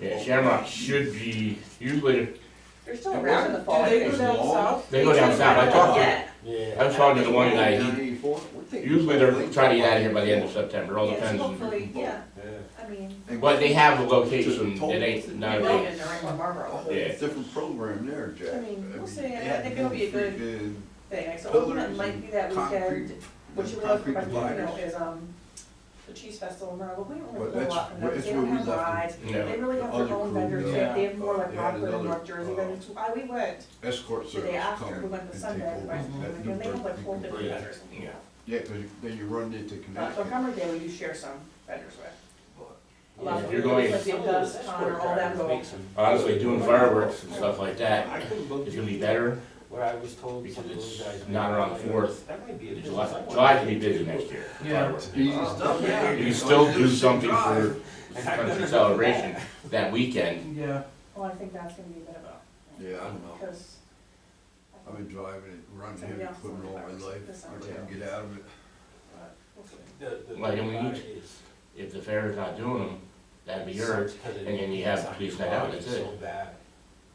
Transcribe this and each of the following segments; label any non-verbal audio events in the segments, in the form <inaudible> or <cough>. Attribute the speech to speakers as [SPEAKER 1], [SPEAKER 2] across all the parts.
[SPEAKER 1] Yeah, Shamrock should be, usually,
[SPEAKER 2] They're still around in the fall. I
[SPEAKER 3] Do they
[SPEAKER 2] think.
[SPEAKER 3] go down
[SPEAKER 4] Long.
[SPEAKER 3] south?
[SPEAKER 1] They go down south. I talked to-
[SPEAKER 2] Yeah.
[SPEAKER 4] Yeah.
[SPEAKER 1] I was talking to the one guy, he,
[SPEAKER 4] Ninety-four?
[SPEAKER 1] usually they're trying to get out of here by the end of September, all
[SPEAKER 2] Yes,
[SPEAKER 1] depends. on-
[SPEAKER 2] Hopefully, yeah,
[SPEAKER 4] Yeah.
[SPEAKER 2] I mean.
[SPEAKER 1] But they have a location, it ain't,
[SPEAKER 2] They're
[SPEAKER 1] not
[SPEAKER 2] in
[SPEAKER 1] a,
[SPEAKER 2] the Rainbow Marlboro
[SPEAKER 1] Yeah.
[SPEAKER 4] Different program there, Jack.
[SPEAKER 2] I mean, we'll see. I
[SPEAKER 4] they had
[SPEAKER 2] think it'll be a good-
[SPEAKER 4] freaking
[SPEAKER 2] thing. So
[SPEAKER 4] Pillars
[SPEAKER 2] it might be that
[SPEAKER 4] Concrete.
[SPEAKER 2] weekend, what you were
[SPEAKER 4] concrete
[SPEAKER 2] looking for, you know,
[SPEAKER 4] dividers.
[SPEAKER 2] is, um, the cheese festival, and we don't
[SPEAKER 4] Well,
[SPEAKER 2] really get a
[SPEAKER 4] that's-
[SPEAKER 2] lot from
[SPEAKER 4] well,
[SPEAKER 2] them.
[SPEAKER 4] it's
[SPEAKER 2] They don't
[SPEAKER 4] where we
[SPEAKER 2] have
[SPEAKER 4] left it.
[SPEAKER 2] rides.
[SPEAKER 1] no.
[SPEAKER 2] They really have their
[SPEAKER 4] Other
[SPEAKER 2] own
[SPEAKER 4] crew,
[SPEAKER 2] vendors. They
[SPEAKER 3] yeah.
[SPEAKER 2] they have more like
[SPEAKER 4] They had
[SPEAKER 2] Rockford and
[SPEAKER 4] another,
[SPEAKER 2] North Jersey
[SPEAKER 4] uh,
[SPEAKER 2] vendors. too. I, we went
[SPEAKER 4] Escort
[SPEAKER 2] the day
[SPEAKER 4] service
[SPEAKER 2] after,
[SPEAKER 4] come
[SPEAKER 2] we went the
[SPEAKER 4] and
[SPEAKER 2] Sunday,
[SPEAKER 4] take over
[SPEAKER 2] right?
[SPEAKER 4] that
[SPEAKER 2] And
[SPEAKER 4] new
[SPEAKER 2] they have like
[SPEAKER 4] dirt
[SPEAKER 2] four
[SPEAKER 4] people.
[SPEAKER 2] different
[SPEAKER 4] Yeah.
[SPEAKER 2] vendors. Uh,
[SPEAKER 1] Yeah.
[SPEAKER 4] Yeah, 'cause you- then you run into
[SPEAKER 2] But for
[SPEAKER 4] Connecticut.
[SPEAKER 2] Hummer Day, we do share some vendors with. A lot of
[SPEAKER 1] You're
[SPEAKER 2] them,
[SPEAKER 1] going-
[SPEAKER 2] like Dave Dust, Connor, all them go.
[SPEAKER 1] Honestly, doing fireworks and stuff like that
[SPEAKER 5] I couldn't go
[SPEAKER 1] is gonna be better.
[SPEAKER 5] where I was told
[SPEAKER 1] because
[SPEAKER 5] some of
[SPEAKER 1] it's
[SPEAKER 5] those guys.
[SPEAKER 1] not around the fourth.
[SPEAKER 5] That might be a business. I
[SPEAKER 1] July,
[SPEAKER 5] want.
[SPEAKER 1] July can be busy next year. fireworks.
[SPEAKER 4] Easy stuff.
[SPEAKER 5] Yeah.
[SPEAKER 1] You can still do something for country celebration that weekend.
[SPEAKER 3] Yeah.
[SPEAKER 2] Well, I think that's gonna be a bit of a,
[SPEAKER 4] Yeah, I don't know.
[SPEAKER 2] because. I
[SPEAKER 4] I've
[SPEAKER 2] think
[SPEAKER 4] been driving it, running
[SPEAKER 2] Somebody
[SPEAKER 4] heavy
[SPEAKER 2] else
[SPEAKER 4] equipment all my
[SPEAKER 2] knows.
[SPEAKER 4] life.
[SPEAKER 2] That's
[SPEAKER 4] I
[SPEAKER 2] not
[SPEAKER 4] can't get out of
[SPEAKER 2] <laughs>
[SPEAKER 4] it.
[SPEAKER 2] we'll see.
[SPEAKER 5] The- the-
[SPEAKER 1] Like, and we need-
[SPEAKER 5] it's-
[SPEAKER 1] If the fair is not doing them, that'd be yours.
[SPEAKER 5] <laughs> it's 'cause it-
[SPEAKER 1] and then you have
[SPEAKER 5] it's not
[SPEAKER 1] police night out,
[SPEAKER 5] quality,
[SPEAKER 1] that's
[SPEAKER 5] it's
[SPEAKER 1] it.
[SPEAKER 5] so bad,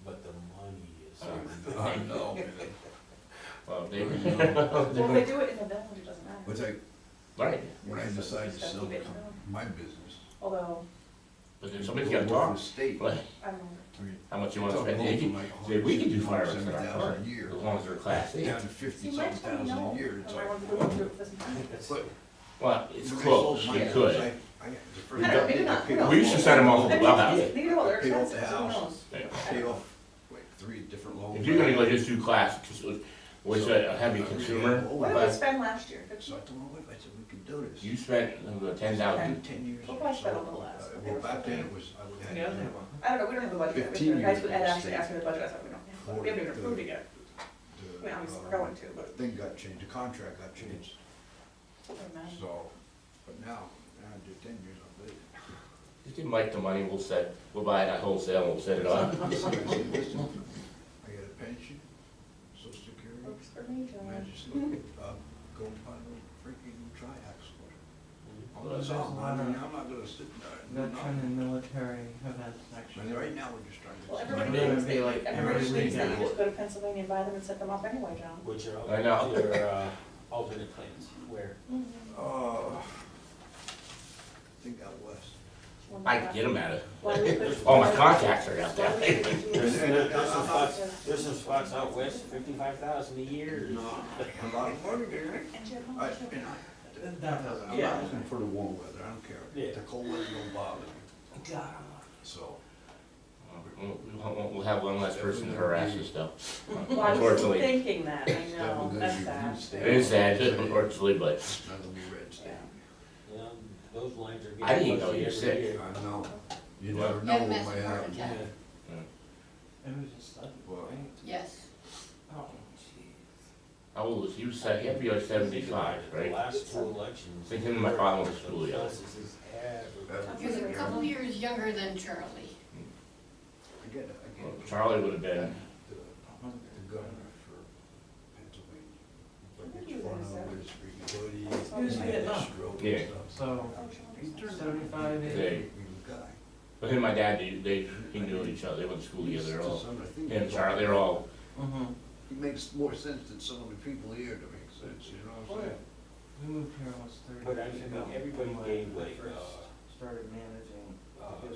[SPEAKER 5] But the money is. so
[SPEAKER 1] Uh,
[SPEAKER 5] bad.
[SPEAKER 4] I know, man.
[SPEAKER 1] Well, they, <laughs>
[SPEAKER 2] Well, if they do it in the village, it doesn't matter.
[SPEAKER 4] But like,
[SPEAKER 1] right,
[SPEAKER 4] when I decide to
[SPEAKER 2] Just
[SPEAKER 4] sell
[SPEAKER 2] keep it in the-
[SPEAKER 4] my business.
[SPEAKER 2] Although,
[SPEAKER 1] but then somebody's
[SPEAKER 4] go
[SPEAKER 1] gotta
[SPEAKER 4] work for
[SPEAKER 1] talk.
[SPEAKER 4] the State.
[SPEAKER 1] Like,
[SPEAKER 2] I don't know.
[SPEAKER 1] how much you
[SPEAKER 4] It's
[SPEAKER 1] wanna
[SPEAKER 4] all
[SPEAKER 1] spend?
[SPEAKER 4] going
[SPEAKER 1] They
[SPEAKER 4] from
[SPEAKER 1] can,
[SPEAKER 4] like
[SPEAKER 1] say, we can do
[SPEAKER 4] 160,000
[SPEAKER 1] fireworks in our park,
[SPEAKER 4] a year
[SPEAKER 1] as long as they're class A.
[SPEAKER 4] Down to fifty
[SPEAKER 2] You might
[SPEAKER 4] something
[SPEAKER 2] tell me
[SPEAKER 4] thousand
[SPEAKER 2] no.
[SPEAKER 4] a year, it's
[SPEAKER 2] I
[SPEAKER 4] like.
[SPEAKER 2] want to go through
[SPEAKER 4] <laughs>
[SPEAKER 2] this and-
[SPEAKER 5] It's-
[SPEAKER 4] But-
[SPEAKER 1] Well, it's
[SPEAKER 4] when I sold
[SPEAKER 1] close,
[SPEAKER 4] my
[SPEAKER 1] you
[SPEAKER 4] house,
[SPEAKER 1] could.
[SPEAKER 4] I- I got the first-
[SPEAKER 2] I don't- maybe not,
[SPEAKER 4] I paid
[SPEAKER 2] no.
[SPEAKER 4] off
[SPEAKER 1] We used to send them all
[SPEAKER 2] I
[SPEAKER 1] to the
[SPEAKER 2] mean,
[SPEAKER 1] clubhouse.
[SPEAKER 2] They do all their
[SPEAKER 4] Pay off
[SPEAKER 2] expenses,
[SPEAKER 4] the
[SPEAKER 2] who
[SPEAKER 4] house.
[SPEAKER 2] knows?
[SPEAKER 4] Pay off like three different loans.
[SPEAKER 1] If you're gonna go just do class, which is a heavy consumer,
[SPEAKER 2] What did we
[SPEAKER 1] but
[SPEAKER 2] spend last year?
[SPEAKER 4] So I told my wife, I said, we can do this.
[SPEAKER 1] you spent ten thousand,
[SPEAKER 4] In ten years.
[SPEAKER 2] We'll probably spend a little
[SPEAKER 4] Uh,
[SPEAKER 2] less.
[SPEAKER 4] Well, back then it was, I had.
[SPEAKER 2] I don't know, we don't have a budget. yet.
[SPEAKER 4] 15
[SPEAKER 2] Guys would
[SPEAKER 4] years.
[SPEAKER 2] Ed actually asked me the budget, I thought we don't have, one. we haven't even approved it yet. I
[SPEAKER 4] the,
[SPEAKER 2] mean, obviously, we're
[SPEAKER 4] uh,
[SPEAKER 2] going to, but.
[SPEAKER 4] Thing got changed, the contract got changed,
[SPEAKER 2] doesn't matter.
[SPEAKER 4] so, but now, now I do ten years, I'll do it.
[SPEAKER 1] just give Mike the money, we'll set, we'll buy it at wholesale, and we'll set it
[SPEAKER 4] I <laughs>
[SPEAKER 1] up.
[SPEAKER 4] said, "Listen, I got a pension, social security,
[SPEAKER 2] Works for me,
[SPEAKER 4] and I
[SPEAKER 2] John.
[SPEAKER 4] just look, uh, go find a freaking triaxle. I'm not, I mean, I'm not gonna sit there and do
[SPEAKER 3] Veteran
[SPEAKER 4] nothing.
[SPEAKER 3] and military events next
[SPEAKER 4] And
[SPEAKER 3] year.
[SPEAKER 4] right now, we're just trying to.
[SPEAKER 2] Well, everybody
[SPEAKER 3] Maybe
[SPEAKER 2] thinks
[SPEAKER 3] it'd be
[SPEAKER 2] they,
[SPEAKER 3] like
[SPEAKER 2] everybody
[SPEAKER 3] every
[SPEAKER 2] thinks that you
[SPEAKER 3] weekend.
[SPEAKER 2] just go to Pennsylvania and buy them and set them up anyway, John.
[SPEAKER 5] Which are
[SPEAKER 1] I know.
[SPEAKER 5] other, uh, alternate plans where
[SPEAKER 2] Mm-hmm.
[SPEAKER 4] Uh, I think out west.
[SPEAKER 1] I can get them at it.
[SPEAKER 2] Why don't we put-
[SPEAKER 1] All my contacts are out
[SPEAKER 2] why
[SPEAKER 1] there.
[SPEAKER 2] don't we do-
[SPEAKER 5] there's, there's some spots,
[SPEAKER 2] Yeah.
[SPEAKER 5] there's some spots out west, fifty-five thousand a year.
[SPEAKER 4] A lot of money there.
[SPEAKER 2] And Jim,
[SPEAKER 4] I,
[SPEAKER 2] how much-
[SPEAKER 4] and I,
[SPEAKER 3] That doesn't.
[SPEAKER 4] I'm not looking for the warm weather, I don't care.
[SPEAKER 5] Yeah.
[SPEAKER 4] The cold weather don't bother me,
[SPEAKER 3] God.
[SPEAKER 4] so.
[SPEAKER 1] We'll, we'll- we'll have one less person to harass and stuff,
[SPEAKER 2] Well, I was
[SPEAKER 1] unfortunately.
[SPEAKER 2] thinking that, I know,
[SPEAKER 4] Definitely
[SPEAKER 2] that's
[SPEAKER 4] good
[SPEAKER 2] sad.
[SPEAKER 4] reviews.
[SPEAKER 1] It is sad, unfortunately, but
[SPEAKER 4] That'll be red state.
[SPEAKER 5] You know, those lines are getting.
[SPEAKER 1] I didn't even know
[SPEAKER 5] fuzzy
[SPEAKER 1] you were
[SPEAKER 5] every
[SPEAKER 1] sick.
[SPEAKER 5] year.
[SPEAKER 4] I know, you
[SPEAKER 1] Yeah.
[SPEAKER 4] never know what
[SPEAKER 6] messed
[SPEAKER 4] might
[SPEAKER 6] with heart
[SPEAKER 4] happen.
[SPEAKER 6] attack.
[SPEAKER 5] Yeah.
[SPEAKER 3] It was just sudden,
[SPEAKER 4] Well,
[SPEAKER 3] right?
[SPEAKER 6] Yes.
[SPEAKER 3] Oh, jeez.
[SPEAKER 1] how old was you? Se- You have to be like seventy-five,
[SPEAKER 5] The
[SPEAKER 1] right?
[SPEAKER 5] last two elections.
[SPEAKER 1] Thinking of my father was school, yeah.
[SPEAKER 5] This is everywhere.
[SPEAKER 6] He was a couple years younger than Charlie.
[SPEAKER 4] I get it, I get
[SPEAKER 1] Well,
[SPEAKER 4] it.
[SPEAKER 1] Charlie would have been,
[SPEAKER 4] The, the governor for Pennsylvania,
[SPEAKER 2] I
[SPEAKER 4] like
[SPEAKER 2] think
[SPEAKER 4] it's
[SPEAKER 2] he
[SPEAKER 4] far
[SPEAKER 2] was,
[SPEAKER 4] over
[SPEAKER 2] uh,
[SPEAKER 4] his freaking hoodie.
[SPEAKER 2] He was
[SPEAKER 4] and
[SPEAKER 3] Vietnam.
[SPEAKER 4] his stroke and
[SPEAKER 1] Yeah.
[SPEAKER 4] stuff.
[SPEAKER 3] So,
[SPEAKER 2] Oh, John.
[SPEAKER 4] He's turned-
[SPEAKER 3] Seventy-five,
[SPEAKER 4] he's a
[SPEAKER 1] eighty.
[SPEAKER 4] big guy.
[SPEAKER 1] but him and my dad, they, they, he knew each other, they went to school
[SPEAKER 4] He's
[SPEAKER 1] together, they're all,
[SPEAKER 4] just- I think
[SPEAKER 1] him and
[SPEAKER 4] he's-
[SPEAKER 1] Charlie, they're all,
[SPEAKER 3] mm-hmm,
[SPEAKER 4] He makes more sense than some of the people here to make sense, you know what I'm saying?
[SPEAKER 3] we moved here almost thirty
[SPEAKER 5] But I
[SPEAKER 3] years
[SPEAKER 5] mean,
[SPEAKER 3] ago.
[SPEAKER 5] everybody
[SPEAKER 3] when
[SPEAKER 5] gave
[SPEAKER 3] I
[SPEAKER 5] like,
[SPEAKER 3] first
[SPEAKER 5] uh,
[SPEAKER 3] Started managing. Good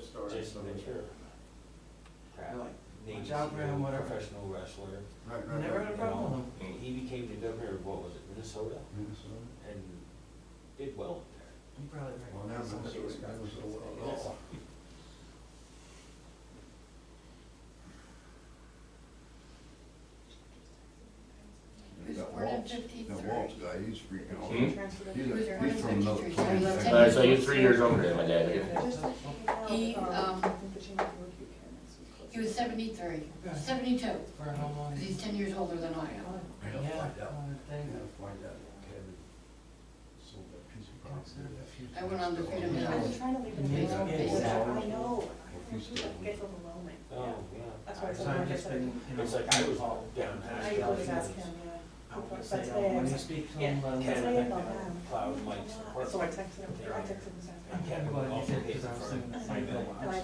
[SPEAKER 5] uh,
[SPEAKER 3] story,
[SPEAKER 5] Jason
[SPEAKER 3] something.
[SPEAKER 5] Ventura. Crap.
[SPEAKER 3] Like,
[SPEAKER 5] Name
[SPEAKER 3] job
[SPEAKER 5] is,
[SPEAKER 3] ran,
[SPEAKER 5] you know,
[SPEAKER 3] whatever.
[SPEAKER 5] Professional wrestler.
[SPEAKER 4] Right, right,
[SPEAKER 3] Never
[SPEAKER 4] right.
[SPEAKER 3] had a problem with him.
[SPEAKER 5] And he became the governor of, what was it, Minnesota?
[SPEAKER 4] Minnesota.
[SPEAKER 5] And did well up there.
[SPEAKER 3] You probably right.
[SPEAKER 4] Well, now
[SPEAKER 3] Somebody
[SPEAKER 4] Minnesota,
[SPEAKER 3] was right.
[SPEAKER 4] Minnesota, oh.
[SPEAKER 6] He was
[SPEAKER 4] That
[SPEAKER 6] born in
[SPEAKER 4] Waltz- That Waltz
[SPEAKER 6] fifty-three.
[SPEAKER 4] guy, he's freaking out.
[SPEAKER 1] Hmm?
[SPEAKER 2] Transferred over
[SPEAKER 4] He's
[SPEAKER 2] to
[SPEAKER 4] a,
[SPEAKER 2] Jeremy.
[SPEAKER 4] he's from another
[SPEAKER 6] He's
[SPEAKER 4] planet.
[SPEAKER 6] like
[SPEAKER 1] all right, so you're three years older than my dad, right?
[SPEAKER 2] Just like, you know,
[SPEAKER 6] He,
[SPEAKER 2] um,
[SPEAKER 6] um,
[SPEAKER 2] I think the change of work you can is close.
[SPEAKER 6] He was seventy-three,
[SPEAKER 3] Yeah.
[SPEAKER 6] seventy-two,
[SPEAKER 3] For how long?
[SPEAKER 6] 'cause he's ten years older than I
[SPEAKER 4] I
[SPEAKER 6] am.
[SPEAKER 4] gotta
[SPEAKER 3] Yeah,
[SPEAKER 4] find out.
[SPEAKER 3] I would
[SPEAKER 4] I
[SPEAKER 3] think.
[SPEAKER 4] gotta find out if Kevin sold that piece of property. that few
[SPEAKER 6] I went on the
[SPEAKER 4] things
[SPEAKER 6] Freedom
[SPEAKER 4] that-
[SPEAKER 2] I've
[SPEAKER 6] House.
[SPEAKER 2] been trying to leave it
[SPEAKER 3] Yeah.
[SPEAKER 2] alone.
[SPEAKER 3] Yeah.
[SPEAKER 2] It's-
[SPEAKER 3] Yeah.
[SPEAKER 2] I know, I
[SPEAKER 4] He's
[SPEAKER 2] do that.
[SPEAKER 4] still-
[SPEAKER 2] It gets overwhelming, yeah.
[SPEAKER 5] Oh, yeah.
[SPEAKER 2] That's why it's
[SPEAKER 3] So
[SPEAKER 2] like,
[SPEAKER 3] I've
[SPEAKER 2] I
[SPEAKER 3] just
[SPEAKER 2] said,
[SPEAKER 3] been, you know.
[SPEAKER 5] It's like I was all down.
[SPEAKER 2] I always ask him, yeah.
[SPEAKER 3] I would
[SPEAKER 2] But
[SPEAKER 3] say,
[SPEAKER 2] today
[SPEAKER 3] uh,
[SPEAKER 2] I
[SPEAKER 3] when
[SPEAKER 2] was
[SPEAKER 3] you
[SPEAKER 2] like,
[SPEAKER 3] speak to
[SPEAKER 2] yeah,
[SPEAKER 3] him, let him
[SPEAKER 2] Cause
[SPEAKER 3] know.
[SPEAKER 2] I
[SPEAKER 5] Yeah.
[SPEAKER 2] didn't know
[SPEAKER 5] Cloud
[SPEAKER 2] him.
[SPEAKER 5] lights,
[SPEAKER 2] So I texted him, I texted him this
[SPEAKER 5] Yeah.
[SPEAKER 2] afternoon.
[SPEAKER 3] I'm glad you did, 'cause I was thinking the same thing.
[SPEAKER 2] And I